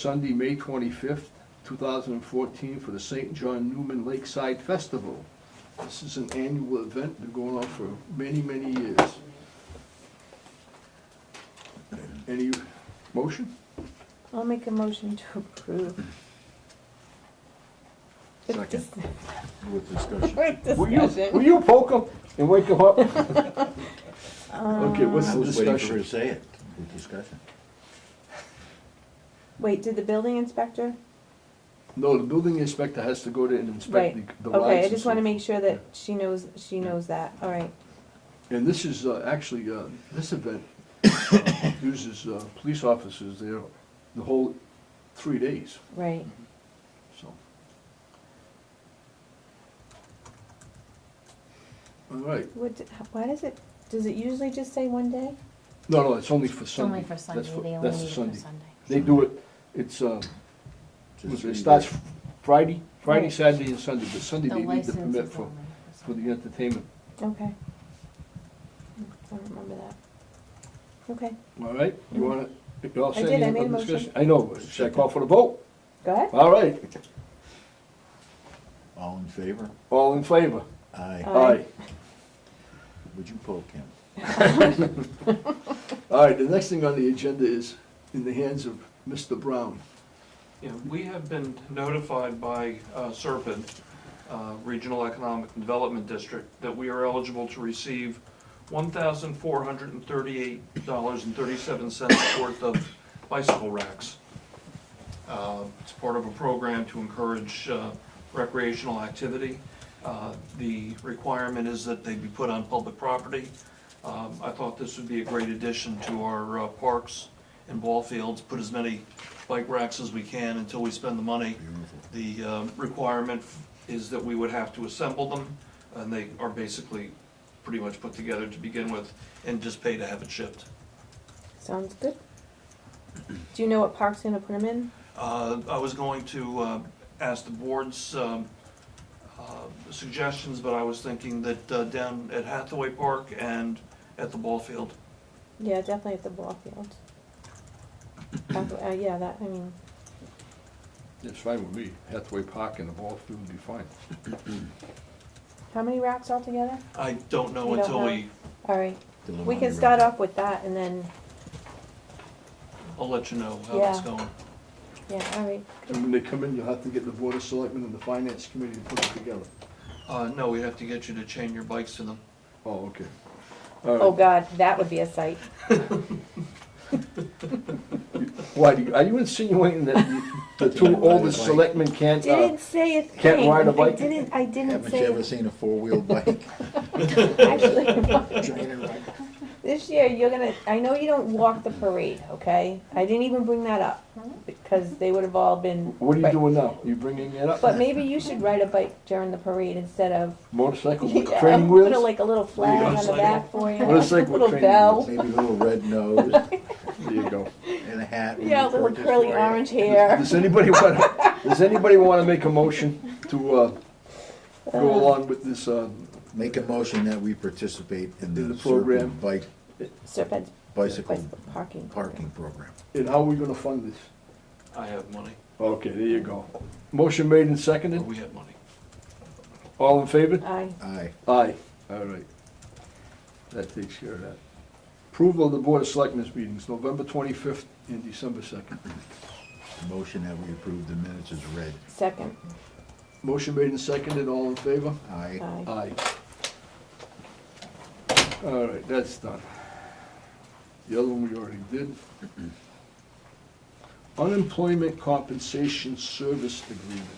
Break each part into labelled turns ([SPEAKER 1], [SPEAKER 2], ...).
[SPEAKER 1] Sunday, May 25th, 2014, for the St. John Newman Lakeside Festival. This is an annual event, been going on for many, many years. Any motion?
[SPEAKER 2] I'll make a motion to approve. With
[SPEAKER 3] Second.
[SPEAKER 2] dis-
[SPEAKER 3] with discussion.
[SPEAKER 2] With
[SPEAKER 1] Will you, will
[SPEAKER 2] discussion.
[SPEAKER 1] you poke him and wake him up? Okay, what's
[SPEAKER 3] I
[SPEAKER 1] the
[SPEAKER 3] was waiting for her to
[SPEAKER 1] discussion?
[SPEAKER 3] say it, with discussion.
[SPEAKER 2] Wait, did the building inspector?
[SPEAKER 1] No, the building inspector has to go to and inspect
[SPEAKER 2] Right.
[SPEAKER 1] the- the lines.
[SPEAKER 2] Okay, I
[SPEAKER 1] and
[SPEAKER 2] just
[SPEAKER 1] so
[SPEAKER 2] want to make sure that she knows, she knows that, all right.
[SPEAKER 1] And this is uh, actually, uh, this event uh, uses uh, police officers there the whole three days,
[SPEAKER 2] Right.
[SPEAKER 1] so. All right,
[SPEAKER 2] What, d- why does it, does it usually just say one day?
[SPEAKER 1] no, no, it's only for
[SPEAKER 4] It's only
[SPEAKER 1] Sunday.
[SPEAKER 4] for
[SPEAKER 1] That's
[SPEAKER 4] Sunday,
[SPEAKER 1] for-
[SPEAKER 4] they only
[SPEAKER 1] that's the
[SPEAKER 4] meet for
[SPEAKER 1] Sunday.
[SPEAKER 4] Sunday.
[SPEAKER 1] They do it, it's, uh,
[SPEAKER 3] It's a
[SPEAKER 1] it
[SPEAKER 3] three-day-
[SPEAKER 1] starts Friday, Friday,
[SPEAKER 2] Right.
[SPEAKER 1] Saturday, and Sunday, but Sunday
[SPEAKER 4] The
[SPEAKER 1] they need the
[SPEAKER 4] license
[SPEAKER 1] permit
[SPEAKER 4] is
[SPEAKER 1] for,
[SPEAKER 4] only
[SPEAKER 1] for the
[SPEAKER 4] Sunday.
[SPEAKER 1] entertainment,
[SPEAKER 2] Okay. I don't remember that. Okay,
[SPEAKER 1] all right? You wanna, you all
[SPEAKER 2] I
[SPEAKER 1] set?
[SPEAKER 2] did, I
[SPEAKER 1] Any
[SPEAKER 2] made
[SPEAKER 1] other
[SPEAKER 2] a motion.
[SPEAKER 1] discussion? I know, should I call for the vote?
[SPEAKER 2] go ahead.
[SPEAKER 1] All right,
[SPEAKER 3] All in favor?
[SPEAKER 1] all in favor?
[SPEAKER 3] Aye.
[SPEAKER 2] Aye.
[SPEAKER 3] Would you poke him?
[SPEAKER 1] All right, the next thing on the agenda is in the hands of Mr. Brown.
[SPEAKER 5] Yeah, we have been notified by uh, Serpent, uh, Regional Economic Development District, that we are eligible to receive $1,438.37 worth of bicycle racks. Uh, It's part of a program to encourage uh, recreational activity. Uh, The requirement is that they be put on public property. Um, I thought this would be a great addition to our uh, parks and ball fields, put as many bike racks as we can until we spend the money.
[SPEAKER 3] Beautiful.
[SPEAKER 5] The um, requirement is that we would have to assemble them, and they are basically pretty much put together to begin with, and just pay to have it shipped.
[SPEAKER 2] Sounds good. Do you know what park's gonna put them in?
[SPEAKER 5] Uh, I was going to uh, ask the board's um, uh, suggestions, but I was thinking that uh, down at Hathaway Park and at the ball field.
[SPEAKER 2] Yeah, definitely at the ball field. Uh, yeah, that, I mean,
[SPEAKER 1] It's fine with me. Hathaway Park and the ball field would be fine.
[SPEAKER 2] how many racks altogether?
[SPEAKER 5] I don't know
[SPEAKER 2] You don't
[SPEAKER 5] until
[SPEAKER 2] know?
[SPEAKER 5] we,
[SPEAKER 2] All right,
[SPEAKER 3] The
[SPEAKER 2] we
[SPEAKER 3] Lamonti
[SPEAKER 2] can start
[SPEAKER 3] River.
[SPEAKER 2] off with that and then,
[SPEAKER 5] I'll let you know how it's
[SPEAKER 2] Yeah.
[SPEAKER 5] going.
[SPEAKER 2] yeah, all right.
[SPEAKER 1] And when they come in, you'll have to get the Board of Selectmen and the Finance Committee to put it together.
[SPEAKER 5] Uh, No, we have to get you to chain your bikes to them.
[SPEAKER 1] Oh, okay.
[SPEAKER 2] Oh,
[SPEAKER 1] All right.
[SPEAKER 2] God, that would be a sight.
[SPEAKER 1] Why, do you- are you insinuating that you- the two oldest selectmen can't, uh,
[SPEAKER 2] Didn't say a thing.
[SPEAKER 1] Can't ride a bike?
[SPEAKER 2] I didn't, I didn't
[SPEAKER 3] Haven't you
[SPEAKER 2] say
[SPEAKER 3] ever
[SPEAKER 2] a
[SPEAKER 3] seen a four-wheel bike?
[SPEAKER 2] Actually,
[SPEAKER 3] Trainer bike?
[SPEAKER 2] This year, you're gonna, I know you don't walk the parade, okay? I didn't even bring that up, because they would have all been.
[SPEAKER 1] what are you
[SPEAKER 2] right.
[SPEAKER 1] doing now? You bringing it up?
[SPEAKER 2] But maybe you should ride a bike during the parade instead of.
[SPEAKER 1] Motorcycle with
[SPEAKER 2] Yeah,
[SPEAKER 1] training
[SPEAKER 2] Put a,
[SPEAKER 1] wheels?
[SPEAKER 2] like a little flag on the
[SPEAKER 5] Motorcycle.
[SPEAKER 2] back for you.
[SPEAKER 1] Motorcycle with
[SPEAKER 2] Little
[SPEAKER 1] training
[SPEAKER 2] bell.
[SPEAKER 3] Maybe a little red nose
[SPEAKER 1] There you go.
[SPEAKER 3] and a hat. when
[SPEAKER 2] Yeah,
[SPEAKER 3] you
[SPEAKER 2] little
[SPEAKER 3] purchase
[SPEAKER 2] curly
[SPEAKER 3] for it.
[SPEAKER 2] orange hair.
[SPEAKER 1] Does anybody want, does anybody want to make a motion to, uh, go along with this, uh,
[SPEAKER 3] Make a motion that we participate in
[SPEAKER 1] In
[SPEAKER 3] the
[SPEAKER 1] the program.
[SPEAKER 3] Serpent Bike
[SPEAKER 2] Serpent's
[SPEAKER 3] Bicycle
[SPEAKER 2] bicycle parking.
[SPEAKER 3] Parking Program.
[SPEAKER 1] and how are we gonna fund this?
[SPEAKER 5] I have money,
[SPEAKER 1] Okay, there you go. Motion made and
[SPEAKER 5] or
[SPEAKER 1] seconded.
[SPEAKER 5] we have money.
[SPEAKER 1] All in favor?
[SPEAKER 2] Aye.
[SPEAKER 3] Aye.
[SPEAKER 1] Aye. All right. That takes care of that. Approval of the Board of Selectmen's meetings, November 25th and December 2nd.
[SPEAKER 3] Motion that we approve the minutes is read.
[SPEAKER 2] Second,
[SPEAKER 1] Motion made and seconded, all in favor?
[SPEAKER 3] Aye.
[SPEAKER 2] aye.
[SPEAKER 1] Aye. All right, that's done. The other one we already did. Unemployment compensation service agreement.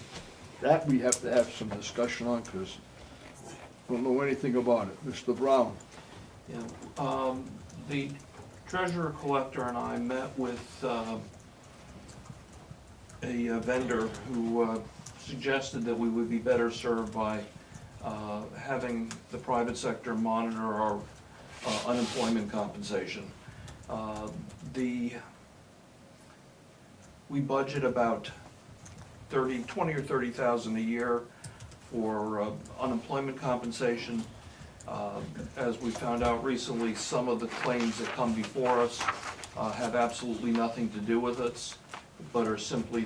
[SPEAKER 1] That we have to have some discussion on because don't know anything about it. Mr. Brown?
[SPEAKER 5] Yeah, um, the treasurer collector and I met with, um, a uh, vendor who, uh, suggested that we would be better served by, uh, having the private sector monitor our uh, unemployment compensation. Uh, the, we budget about thirty, twenty or thirty thousand a year for uh, unemployment compensation. Uh, As we found out recently, some of the claims that come before us uh, have absolutely nothing to do with us, but are simply